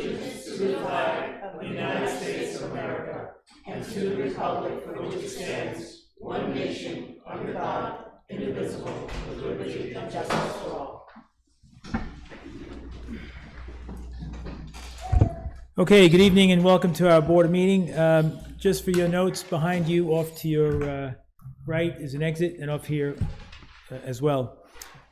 allegiance to the flag of the United States of America and to the republic for which it stands, one nation, under God, indivisible, with liberty and justice for all. Okay, good evening and welcome to our board meeting. Um, Just for your notes, behind you, off to your uh, right is an exit, and off here uh, as well.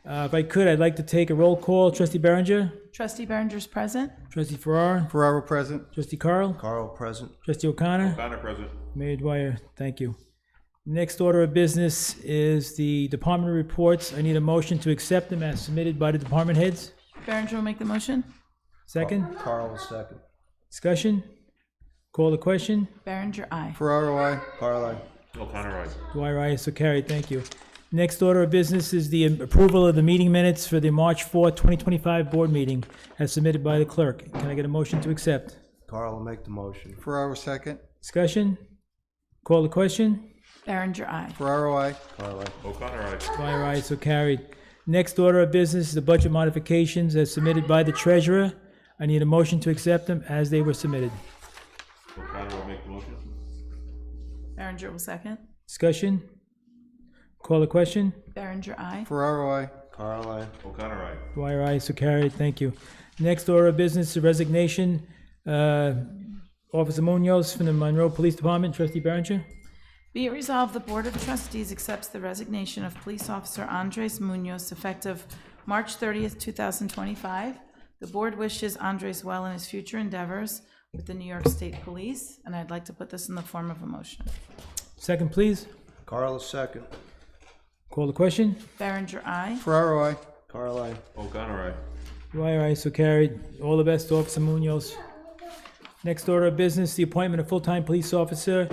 Uh, If I could, I'd like to take a roll call. Trustee Berenger, Trustee Berenger's present. trustee Farrar, Ferraro present. trustee Carl, Carl present. trustee O'Connor, O'Connor present. Mayor Dwyer, thank you. Next order of business is the department reports. I need a motion to accept them as submitted by the department heads. Berenger will make the motion. Second, Carl was second. discussion? Call the question? Berenger, aye. Ferraro, I. Carl, I. O'Connor, aye. Dwyer, aye, so carried, thank you. Next order of business is the approval of the meeting minutes for the March 4th, 2025 board meeting as submitted by the clerk. Can I get a motion to accept? Carl will make the motion. Ferraro second. Discussion? Call the question? Berenger, aye. Ferraro, I. Carl, I. O'Connor, aye. Dwyer, aye, so carried. Next order of business is the budget modifications as submitted by the treasurer. I need a motion to accept them as they were submitted. O'Connor will make the motion. Berenger will second. Discussion? Call the question? Berenger, aye. Ferraro, I. Carl, I. O'Connor, aye. Dwyer, aye, so carried, thank you. Next order of business, the resignation, uh, Officer Munoz from the Monroe Police Department, trustee Berenger. Be it resolved, the Board of Trustees accepts the resignation of Police Officer Andres Munoz effective March 30th, 2025. The board wishes Andres well in his future endeavors with the New York State Police, and I'd like to put this in the form of a motion. Second, please. Carl is second. Call the question. Berenger, aye. Ferraro, I. Carl, I. O'Connor, aye. Dwyer, aye, so carried. All the best, Officer Munoz. Next order of business, the appointment of full-time police officer,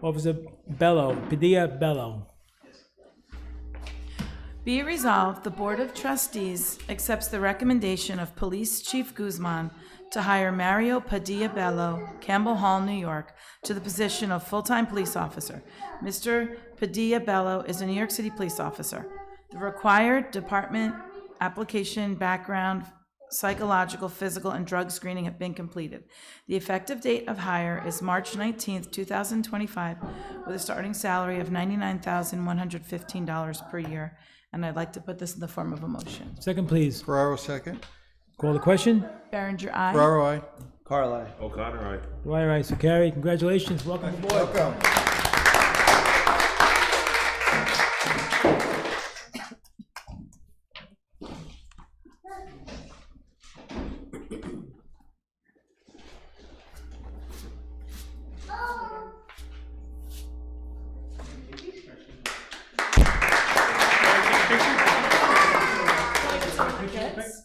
Officer Bello, Padilla Bello. Be it resolved, the Board of Trustees accepts the recommendation of Police Chief Guzman to hire Mario Padilla Bello, Campbell Hall, New York, to the position of full-time police officer. Mr. Padilla Bello is a New York City police officer. The required department application background psychological, physical, and drug screening have been completed. The effective date of hire is March 19th, 2025, with a starting salary of $99,115 per year. And I'd like to put this in the form of a motion. Second, please. Ferraro second. Call the question. Berenger, aye. Ferraro, I. Carl, I. O'Connor, aye. Dwyer, aye, so carried. Congratulations, welcome aboard. Welcome.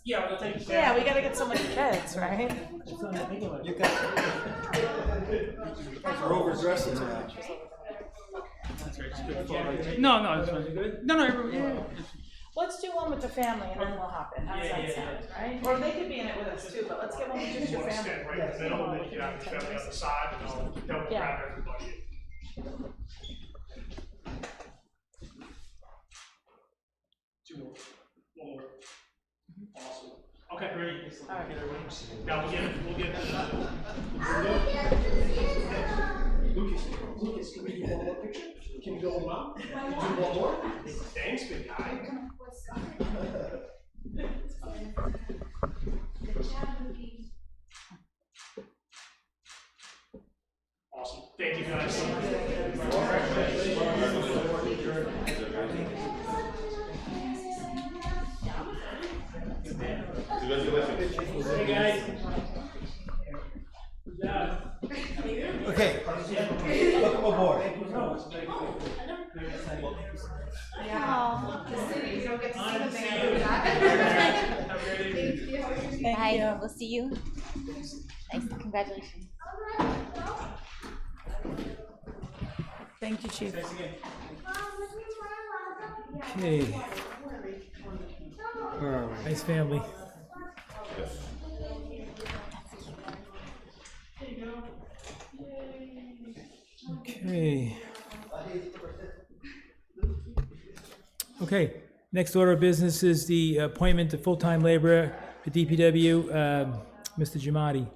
Yeah, we gotta get so many kids, right? We're overdressing now. No, no, it's fine. No, no, everyone- yeah, yeah. Let's do one with the family and then we'll hop in. How's that sound, right? Or they could be in it with us too, but let's get one with just your family. stand right in the middle, and then you have to stand on the other side, and I'll double Yeah. grab everybody. Two more, one more. Awesome. Okay, ready? Now, we'll get, we'll get. Lucas, Lucas, can we do one more picture? Can you go with mom? Do one more? Thanks, big guy. Awesome. Thank you guys so much. Congratulations. Okay. Welcome aboard. Bye. We'll see you. Thanks. Congratulations. Thank you, Chief. Okay, All right. nice family. Okay. Okay, next order of business is the appointment of full-time laborer for DPW, um, Mr. Jamadi.